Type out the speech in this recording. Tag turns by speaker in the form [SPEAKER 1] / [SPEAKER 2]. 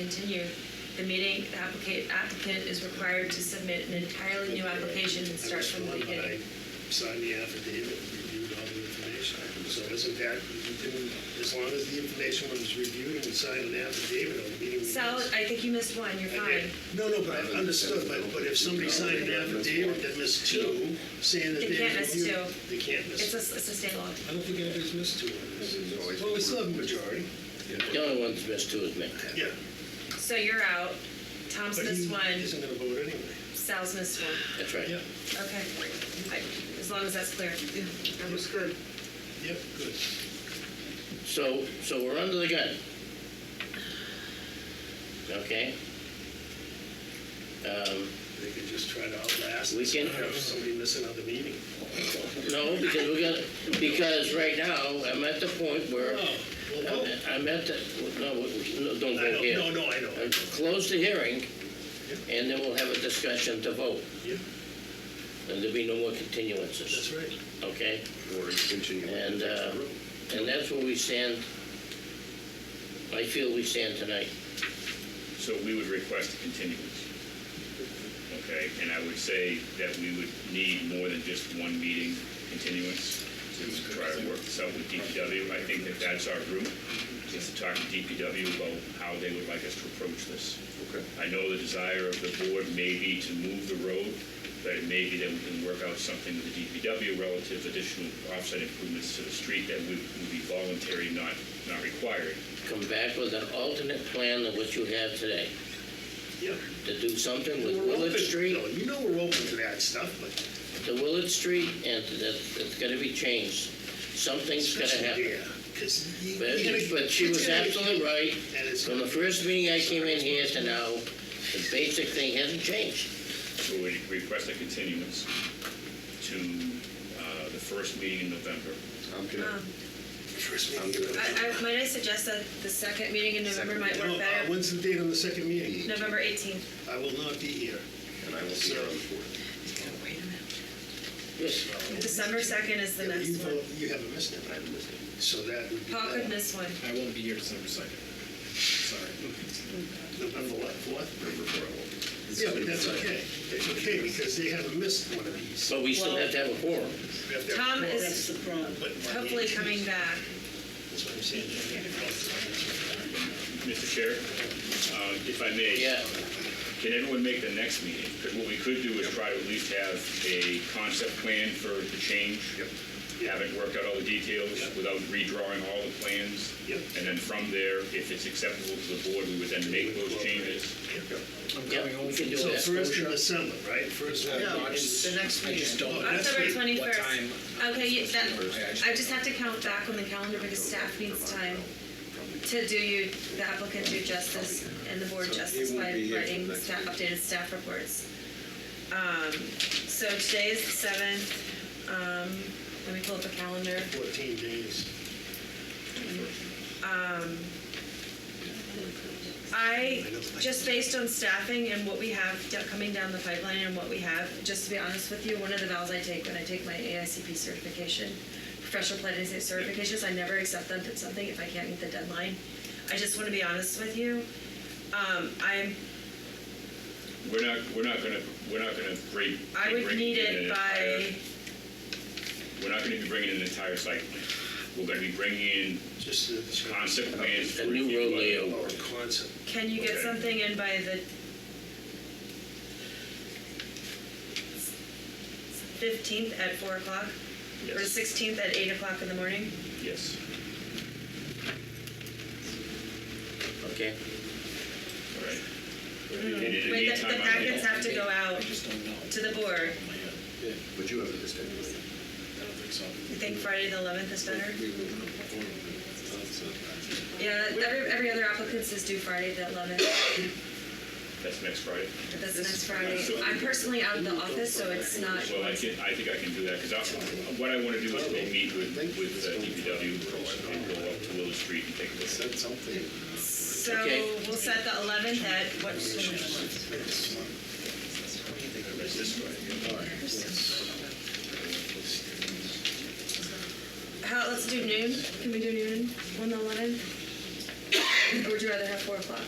[SPEAKER 1] continue the meeting, the applicant, applicant is required to submit an entirely new application and start from the beginning.
[SPEAKER 2] Sign the affidavit and reviewed all the information. So isn't that, you didn't- as long as the information was reviewed and signed an affidavit on the meeting.
[SPEAKER 1] Sal, I think you missed one, you're fine.
[SPEAKER 2] No, no, but I understood, but, but if somebody signed an affidavit that missed two, saying that
[SPEAKER 1] They
[SPEAKER 2] they.
[SPEAKER 1] can't miss
[SPEAKER 2] reviewed-
[SPEAKER 1] two.
[SPEAKER 2] They can't
[SPEAKER 1] It's
[SPEAKER 2] miss.
[SPEAKER 1] a, it's a state law.
[SPEAKER 2] I don't think anybody's missed two on this.
[SPEAKER 3] It's always-
[SPEAKER 2] Well, we still have a majority.
[SPEAKER 4] The only one that's missed two is me.
[SPEAKER 2] Yeah.
[SPEAKER 1] So you're out, Tom's
[SPEAKER 2] But
[SPEAKER 1] missed
[SPEAKER 2] he
[SPEAKER 1] one,
[SPEAKER 2] isn't gonna vote anyway.
[SPEAKER 1] Sal's missed one.
[SPEAKER 4] That's right.
[SPEAKER 2] Yeah,
[SPEAKER 1] Okay, I- as long as that's clear.
[SPEAKER 2] that was good. Yep, good.
[SPEAKER 4] So, so we're under the gun. Okay? Um,
[SPEAKER 2] They could just try to outlast.
[SPEAKER 4] We
[SPEAKER 2] us
[SPEAKER 4] can-
[SPEAKER 2] and Have somebody miss another meeting.
[SPEAKER 4] No, because we're gonna, because right now, I'm at the point where,
[SPEAKER 2] Well,
[SPEAKER 4] I'm- I'm at the, no, we- no, don't
[SPEAKER 2] I
[SPEAKER 4] go
[SPEAKER 2] know,
[SPEAKER 4] here.
[SPEAKER 2] no, no, I know.
[SPEAKER 4] Uh, Close the hearing, and then we'll have a discussion to vote,
[SPEAKER 2] Yeah,
[SPEAKER 4] and there'll be no more continuances,
[SPEAKER 2] that's right.
[SPEAKER 4] okay?
[SPEAKER 3] Or you continue.
[SPEAKER 4] And, uh, and that's where we stand, I feel we stand tonight.
[SPEAKER 5] So we would request a continuance. Okay, and I would say that we would need more than just one meeting continuance to try to work this out with DPW. I think that that's our route, is to talk to DPW about how they would like us to approach this.
[SPEAKER 3] Okay.
[SPEAKER 5] I know the desire of the board may be to move the road, but it may be that we can work out something with the DPW relative additional offset improvements to the street that would would be voluntary, not, not required.
[SPEAKER 4] Come back with an alternate plan than what you have today,
[SPEAKER 2] Yeah.
[SPEAKER 4] to do something with
[SPEAKER 2] We're
[SPEAKER 4] Willard
[SPEAKER 2] open-
[SPEAKER 4] Street.
[SPEAKER 2] no, You know we're open to that stuff, but.
[SPEAKER 4] the Willard Street, and that, that's gotta be changed. Something's gotta happen.
[SPEAKER 2] Because you.
[SPEAKER 4] But,
[SPEAKER 2] you gotta-
[SPEAKER 4] but she
[SPEAKER 2] it's
[SPEAKER 4] was
[SPEAKER 2] gotta be-
[SPEAKER 4] absolutely right.
[SPEAKER 2] And it's.
[SPEAKER 4] From the first meeting I came in here to now, the basic thing hasn't changed.
[SPEAKER 5] So we request a continuance to uh, the first meeting in November.
[SPEAKER 3] I'm
[SPEAKER 1] Um,
[SPEAKER 3] gonna,
[SPEAKER 2] First meeting.
[SPEAKER 3] I'm good.
[SPEAKER 1] I, I, might I suggest that the second meeting in November might
[SPEAKER 2] No,
[SPEAKER 1] work
[SPEAKER 2] uh,
[SPEAKER 1] better?
[SPEAKER 2] when's the date on the second meeting?
[SPEAKER 1] November 18th.
[SPEAKER 2] I will not be here.
[SPEAKER 1] uh,
[SPEAKER 3] and I will see you on the fourth.
[SPEAKER 1] Wait a minute.
[SPEAKER 4] Yes,
[SPEAKER 1] December 2nd is the
[SPEAKER 2] Yeah, but you
[SPEAKER 1] next one.
[SPEAKER 2] vote- You haven't missed it. I haven't missed it. So that would be.
[SPEAKER 1] Paul could
[SPEAKER 2] that.
[SPEAKER 1] miss one.
[SPEAKER 6] I won't be here December second. Sorry.
[SPEAKER 2] November what, what?
[SPEAKER 3] Number four, I won't.
[SPEAKER 2] Yeah, but that's okay. It's okay because they haven't missed one of these.
[SPEAKER 4] but we still have to have a quorum.
[SPEAKER 2] We have to have
[SPEAKER 1] Tom
[SPEAKER 2] four.
[SPEAKER 1] is
[SPEAKER 2] But-
[SPEAKER 1] hopefully coming back.
[SPEAKER 2] That's what I'm saying.
[SPEAKER 5] Mr. Chair, uh, if I may.
[SPEAKER 4] Yeah,
[SPEAKER 5] Can everyone make the next meeting? 'Cause What we could do is try to at least have a concept plan for the change. Haven't worked out all the details
[SPEAKER 2] Yep.
[SPEAKER 5] without redrawing all the plans.
[SPEAKER 2] Yep.
[SPEAKER 5] And then from there, if it's acceptable to the board, we would then make those changes.
[SPEAKER 4] yeah, we can do
[SPEAKER 2] So
[SPEAKER 4] that.
[SPEAKER 2] first of December, right? First.
[SPEAKER 6] The next meeting. I just don't.
[SPEAKER 2] That's
[SPEAKER 1] October
[SPEAKER 2] right.
[SPEAKER 1] 21st.
[SPEAKER 6] What time?
[SPEAKER 1] Okay, you- that,
[SPEAKER 6] just-
[SPEAKER 1] I just have to count back on the calendar because staff needs time to do you, the applicant do justice and the board justice by writing staff, updated staff reports. Um, So today is the 7th. Um, Let me pull up the calendar.
[SPEAKER 2] 14 days.
[SPEAKER 1] I, just based on staffing and what we have d- coming down the pipeline and what we have, just to be honest with you, one of the vows I take when I take my AICP certification, professional planning certifications, I never accept them at something if I can't meet the deadline. I just want to be honest with you. Um, I'm,
[SPEAKER 5] We're not, we're not gonna, we're not gonna break.
[SPEAKER 1] I would
[SPEAKER 5] break
[SPEAKER 1] need
[SPEAKER 5] an
[SPEAKER 1] it
[SPEAKER 5] entire-
[SPEAKER 1] by,
[SPEAKER 5] We're not gonna be bringing an entire site plan. We're gonna be bringing in
[SPEAKER 2] Just the
[SPEAKER 5] concept plans.
[SPEAKER 4] A new road layout.
[SPEAKER 2] Or concept.
[SPEAKER 1] can you get
[SPEAKER 5] Okay.
[SPEAKER 1] something in by the fifteenth at four o'clock? Or
[SPEAKER 5] Yes.
[SPEAKER 1] sixteenth at eight o'clock in the morning?
[SPEAKER 5] Yes.
[SPEAKER 4] Okay,
[SPEAKER 5] All right. And in the
[SPEAKER 1] Mm-hmm. Wait, the-
[SPEAKER 5] meantime,
[SPEAKER 1] the
[SPEAKER 5] I
[SPEAKER 1] packets
[SPEAKER 5] think-
[SPEAKER 1] have to go
[SPEAKER 6] I
[SPEAKER 1] out
[SPEAKER 6] just don't know.
[SPEAKER 1] to the board.
[SPEAKER 6] In my head.
[SPEAKER 3] But you have a distinct.
[SPEAKER 6] I don't think so.
[SPEAKER 1] You think Friday the eleventh is better?
[SPEAKER 3] We will perform. That's, uh,
[SPEAKER 1] Yeah, every, every other applicant is due Friday the eleventh,
[SPEAKER 5] That's next Friday.
[SPEAKER 1] that's next Friday. I'm personally out of the office, so it's not,
[SPEAKER 5] Well, I can, I think I can do that, because what I want to do is go meet with, with uh, DPW and go up to Willow Street and take a look.
[SPEAKER 3] Said something.
[SPEAKER 1] so
[SPEAKER 4] Okay.
[SPEAKER 1] we'll set the eleventh at what?
[SPEAKER 5] That's this Friday.
[SPEAKER 1] How, let's do noon, can we do noon on the eleventh? Or would you rather have four o'clock?